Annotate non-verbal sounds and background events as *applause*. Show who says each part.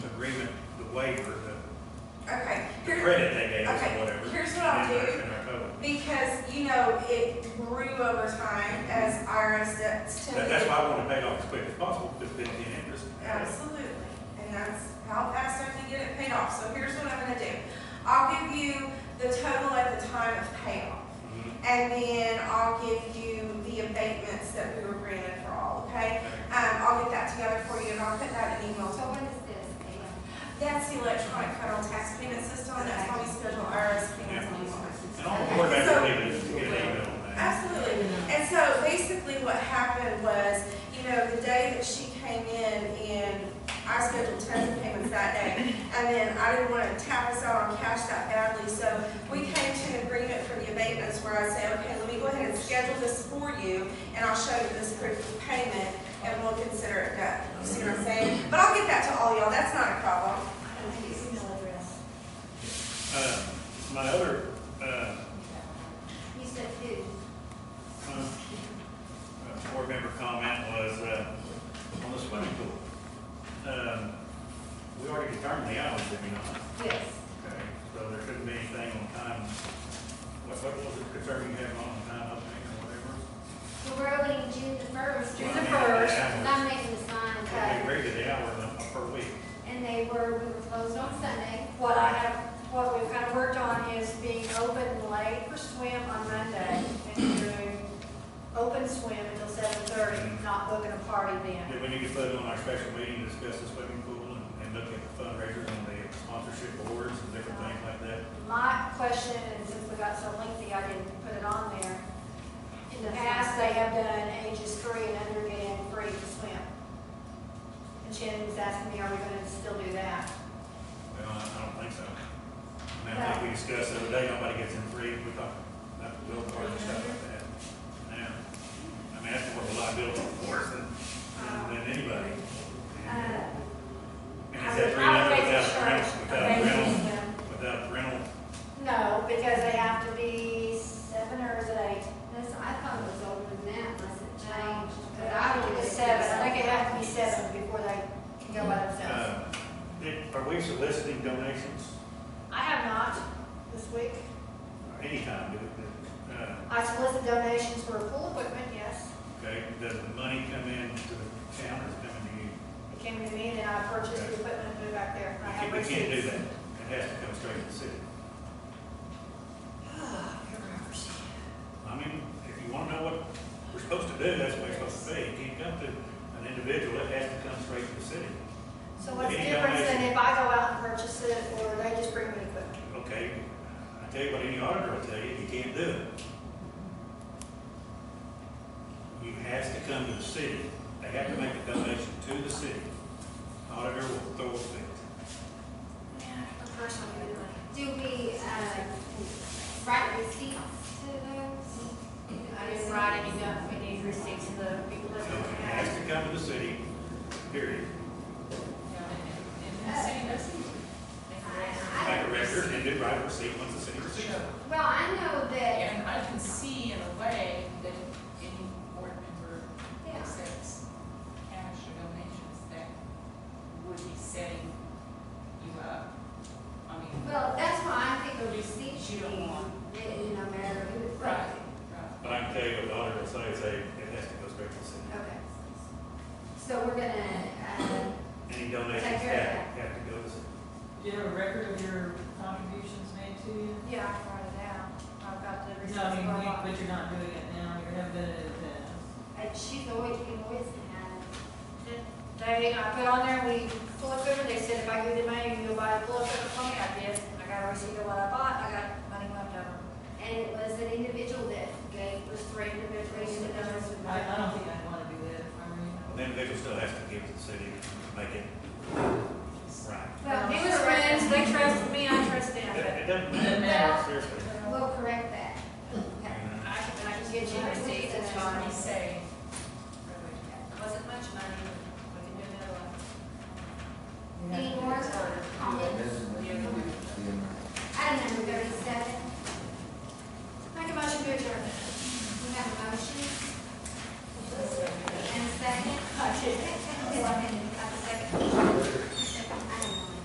Speaker 1: waiver, the-
Speaker 2: Okay,
Speaker 1: the
Speaker 2: here,
Speaker 1: credit they gave us or
Speaker 2: Okay,
Speaker 1: whatever.
Speaker 2: here's what I'll
Speaker 1: and then
Speaker 2: do.
Speaker 1: that's in our code.
Speaker 2: because, you know, it grew over time as IRS debts
Speaker 1: That-
Speaker 2: tend
Speaker 1: That's why
Speaker 2: to.
Speaker 1: I want to pay off as quick as possible, because it's been interest.
Speaker 2: Absolutely, and that's how fast I can get it paid off, so here's what I'm gonna do. I'll give you the total at the time of payoff.
Speaker 1: Mhm.
Speaker 2: And then I'll give you the abatements that we were granted for all, okay? Um, I'll get that together for you and I'll put that in email
Speaker 3: So
Speaker 2: to
Speaker 3: what is this? Anyway,
Speaker 2: That's the electronic federal tax payment system, that's how we schedule IRS payments on these ones.
Speaker 1: And all the board members need is to get an email on that.
Speaker 2: Absolutely. And so basically what happened was, you know, the day that she came in and I scheduled tons of payments that day. And then I didn't want to tap us out on cash that badly, so we came to an agreement for the abatements where I said, okay, let me go ahead and schedule this for you and I'll show you this proof of payment and we'll consider it done. You see what I'm saying? But I'll get that to all y'all, that's not a problem.
Speaker 3: email address.
Speaker 1: Uh, My other, uh,
Speaker 3: You said who?
Speaker 1: Uh, Board member comment was, uh, on the swimming pool. Um, We already determined the hours, did we not?
Speaker 3: Yes.
Speaker 1: Okay, so there shouldn't be anything on time. What, what was it concerning you having on time opening or whatever?
Speaker 3: Well, we're opening June the first.
Speaker 1: June the first.
Speaker 3: I'm making this line
Speaker 1: We
Speaker 3: cut.
Speaker 1: agreed to the hours on- per week.
Speaker 3: And they were, we were closed on Sunday.
Speaker 4: What I have, what we've kind of worked on is being open late for swim on Monday and doing open swim until seven thirty, not booking a party then.
Speaker 1: Did we need to put on our special meeting, to discuss the swimming pool and, and look at the fundraisers and the sponsorship awards and different things like that?
Speaker 4: My question, and since we got so lengthy, I didn't put it on there. In the past, they have done ages three and under getting free to swim. And Shannon was asking me, are we gonna still do that?
Speaker 1: Well, I I don't think so. I mean, I think we discussed the other day, nobody gets in free, we talked about the bill part and stuff like that. Now, I mean, that's more of a liability for us than, than anybody. And
Speaker 4: Uh,
Speaker 1: it's at three hundred without rentals, without rental,
Speaker 4: Okay.
Speaker 1: without rental.
Speaker 4: No, because they have to be seven or is it eight?
Speaker 3: That's, I thought it was older than that, unless it changed.
Speaker 4: But I think it's seven, I think it has to be seven before they can go by themselves.
Speaker 1: Uh, it- Are we soliciting donations
Speaker 4: I have not this week.
Speaker 1: anytime? Do we- uh,
Speaker 4: I solicit donations for pool equipment, yes.
Speaker 1: Okay, does the money come in to the town or is it coming to you?
Speaker 4: It came to me and then I purchased the equipment and put it back there. I
Speaker 1: We
Speaker 4: have
Speaker 1: can't- we can't do
Speaker 4: receipts.
Speaker 1: that. It has to come straight to the city. I mean, if you wanna know what we're supposed to do, that's what we're supposed to be. You can't come to an individual, it has to come straight to the city.
Speaker 4: So what's the
Speaker 1: Any
Speaker 4: difference than
Speaker 1: donation?
Speaker 4: if I go out and purchase it or they just bring me equipment?
Speaker 1: Okay, I tell you what any auditor will tell you, you can't do it. You has to come to the city, they have to make a donation to the city. Auditor will throw a fit.
Speaker 4: Yeah, the person would be like,
Speaker 3: Do we, uh, write receipts to those?
Speaker 4: Mm-hmm.
Speaker 5: I didn't write any down, we need receipts of the people
Speaker 1: So
Speaker 5: that
Speaker 1: it
Speaker 5: we
Speaker 1: has
Speaker 5: had.
Speaker 1: to come to the city, period.
Speaker 5: And the city doesn't.
Speaker 1: Make a record and do write a receipt once the city receives it.
Speaker 3: Well, I know that,
Speaker 6: And I can see in a way that any board member
Speaker 3: yeah.
Speaker 6: accepts cash or donations that would be setting you up. I mean,
Speaker 3: Well, that's why I think a receipt should
Speaker 6: You
Speaker 3: be
Speaker 6: don't want-
Speaker 3: written, no matter who it's from.
Speaker 6: Right. right.
Speaker 1: But I can tell you what the auditor will say, say, it has to go straight to the city.
Speaker 3: Okay. So we're gonna, uh,
Speaker 1: Any donations
Speaker 3: Take care of
Speaker 1: have, have to go to the city.
Speaker 7: Do you have a record of your contributions made to you?
Speaker 4: yeah, I can write it down. I've got the receipts.
Speaker 7: No, I mean,
Speaker 4: for a
Speaker 7: you-
Speaker 4: lot.
Speaker 7: but you're not doing it now, you haven't done it in the past.
Speaker 3: uh, she's always, you can always have.
Speaker 4: They, I put on there, we pull equipment, they said if I give you the money, you go buy the pull equipment for me, I did, I got a receipt of what I bought, I got money left over.
Speaker 3: And it was an individual that gave, was three individuals, and others with
Speaker 7: I, I
Speaker 3: money.
Speaker 7: don't think I'd wanna do that if I were you.
Speaker 1: The individual still has to give to the city to make it right.
Speaker 3: Well,
Speaker 4: It was friends, they trusted me, I trust them,
Speaker 1: It
Speaker 4: but
Speaker 1: it doesn't matter, seriously. uh,
Speaker 3: We'll correct that. Okay.
Speaker 6: I can,
Speaker 4: I can get you receipts, it's
Speaker 6: let
Speaker 4: fine.
Speaker 6: me say,
Speaker 4: It wasn't much money,
Speaker 3: *laughs*